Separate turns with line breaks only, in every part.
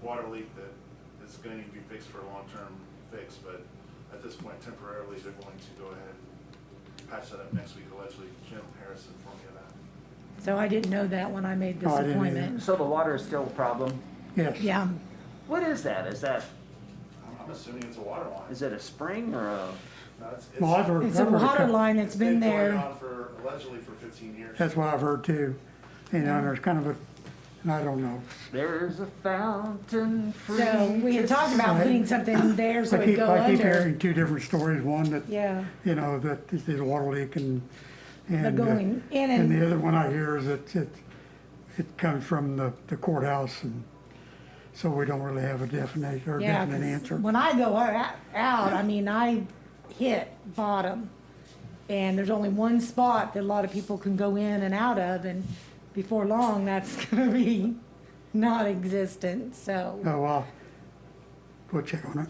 water leak that is gonna need to be fixed for a long-term fix, but at this point temporarily, they're going to go ahead and patch that up next week allegedly. Jim Harris informed me of that.
So I didn't know that when I made this
No, Oh, I didn't either.
appointment.
So the water is still a problem.
Yes.
Yeah,
What is that? Is that,
I'm- I'm assuming it's a water line.
is it a spring or a,
No, it's- it's-
Well, I've heard.
it's
I've
a
heard
water
couple-
line that's been
been going
there.
on For allegedly for fifteen years.
That's what I've heard too. You know, and there's kind of a, and I don't know.
there's a fountain free?
So we had talked about
Right.
putting something there so
I
it'd
keep,
go
I keep
under.
hearing two different stories, one that,
Yeah,
you know, that this is a water leak and, and.
the
uh,
going in
And
and,
the other one I hear is that it, it comes from the the courthouse and so we don't really have a definite or
yeah.
definite
'cause
answer.
When I go out, out, I mean, I hit bottom. And there's only one spot that a lot of people can go in and out of and before long, that's gonna be not existent, so.
No, Oh, well, we'll check on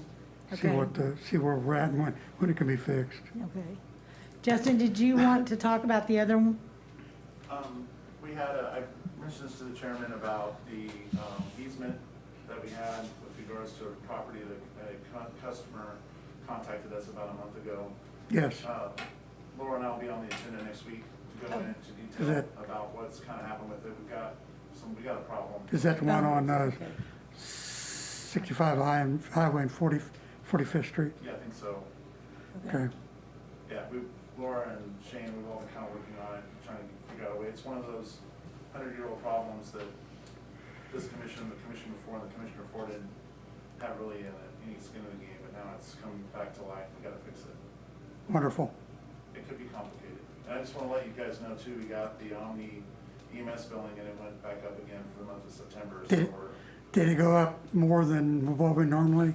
it. See
Okay.
what, the- see where we're at and when, when it can be fixed.
Okay. Justin, did you want to talk about the other one?
Um, we had a, I mentioned this to the chairman about the, um, easement that we had with regards to a property that a cu- customer contacted us about a month ago.
Yes,
Uh, Laura and I will be on the agenda next week to go into
Oh. Is
detail
that-
about what's kinda happened with it. We've got some, we got a problem.
is that the one
Oh.
on uh,
Okay.
65 High and- Highway and 40, 45th Street?
Yeah, I think so.
Okay,
Yeah, we, Laura and Shane, we've all been kind of working on it, trying to figure out a way. It's one of those hundred-year-old problems that this commission, the commission before, and the commission before didn't have really uh, any skin in the game, but now it's coming back to life. We gotta fix it.
wonderful.
It could be complicated. And I just wanna let you guys know too, we got the Omni EMS billing and it went back up again for the month of September, so
Did it-
we're.
Did it go up more than what we normally?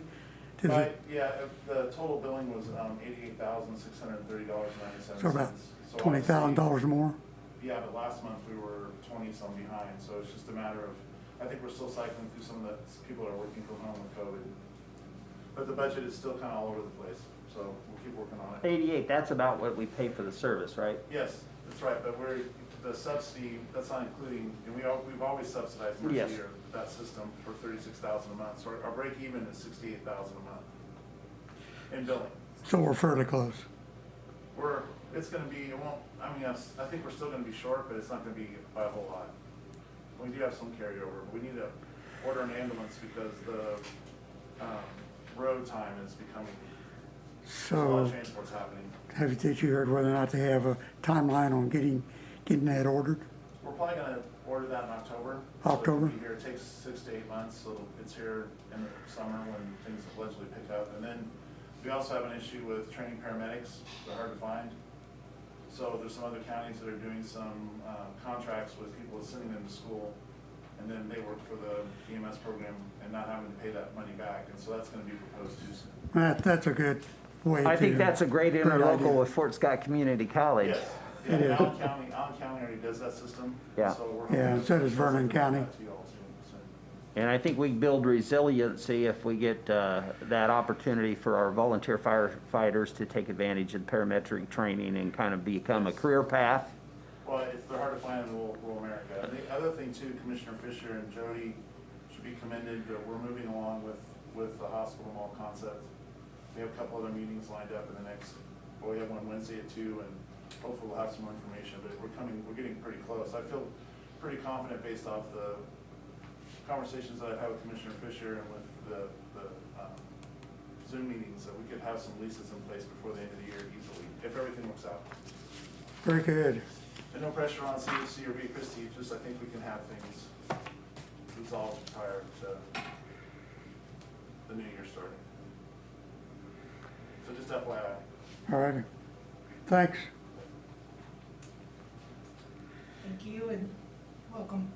Did
Right,
it,
yeah, if the total billing was, um, eighty-eight thousand, six hundred and thirty dollars and ninety-seven
so about
cents.
twenty thousand dollars more?
Yeah, but last month we were twenty-some behind, so it's just a matter of, I think we're still cycling through some of the s- people that are working from home with COVID. But the budget is still kinda all over the place, so we'll keep working on it.
Eighty-eight, that's about what we pay for the service, right?
Yes, that's right, but we're, the subsidy, that's not including, and we all, we've always subsidized most
Yes.
of year, that system for thirty-six thousand a month, so our- our break even is sixty-eight thousand a month. In billing,
So we're fairly close.
we're, it's gonna be, it won't, I mean, I, s- I think we're still gonna be short, but it's not gonna be by a whole lot. We do have some carryover, but we need to order an ambulance because the, um, road time is becoming, there's a lot
So
of transport's happening.
have you, did you heard whether or not they have a timeline on getting, getting that ordered?
We're probably gonna order that in October. so it can
October.
be Here, it takes six to eight months, so it's here in the summer when things allegedly pick up. And then we also have an issue with training paramedics, they're hard to find. So there's some other counties that are doing some, uh, contracts with people sending them to school. And then they work for the EMS program and not having to pay that money back, and so that's gonna be proposed too soon.
That, that's a good way to.
I think that's a great
idea.
interlocal with Fort Scott Community College.
Yes, yeah, and
It is.
Allen County, Allen County already does that system.
Yeah.
so we're hoping
Yeah, and so does
to-
Vernon County.
to y'all soon, soon.
And I think we build resiliency if we get uh, that opportunity for our volunteer firefighters to take advantage of parametric training and kind of become a career path.
Well, it's, they're hard to find in rural, rural America. And the other thing too, Commissioner Fisher and Jody should be commended, that we're moving along with, with the hospital mall concept. We have a couple other meetings lined up in the next, well, we have one Wednesday at two, and hopefully we'll have some more information, but we're coming, we're getting pretty close. I feel pretty confident based off the conversations that I've had with Commissioner Fisher and with the, the, um, Zoom meetings, that we could have some leases in place before the end of the year easily, if everything works out.
Very good.
And no pressure on CUC or B Christie, just I think we can have things resolved prior to the new year starting. So just FYI.
All righty. Thanks.
Thank you and welcome.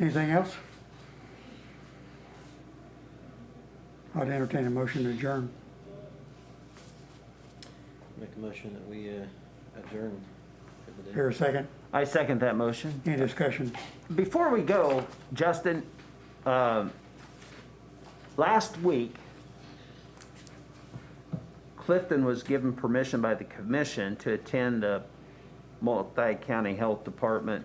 Anything else? I'd entertain a motion to adjourn.
Make a motion that we uh, adjourn for the day.
Here a second.
I second that motion.
Any discussion?
Before we go, Justin, um, last week, Clifton was given permission by the commission to attend a multi-county health department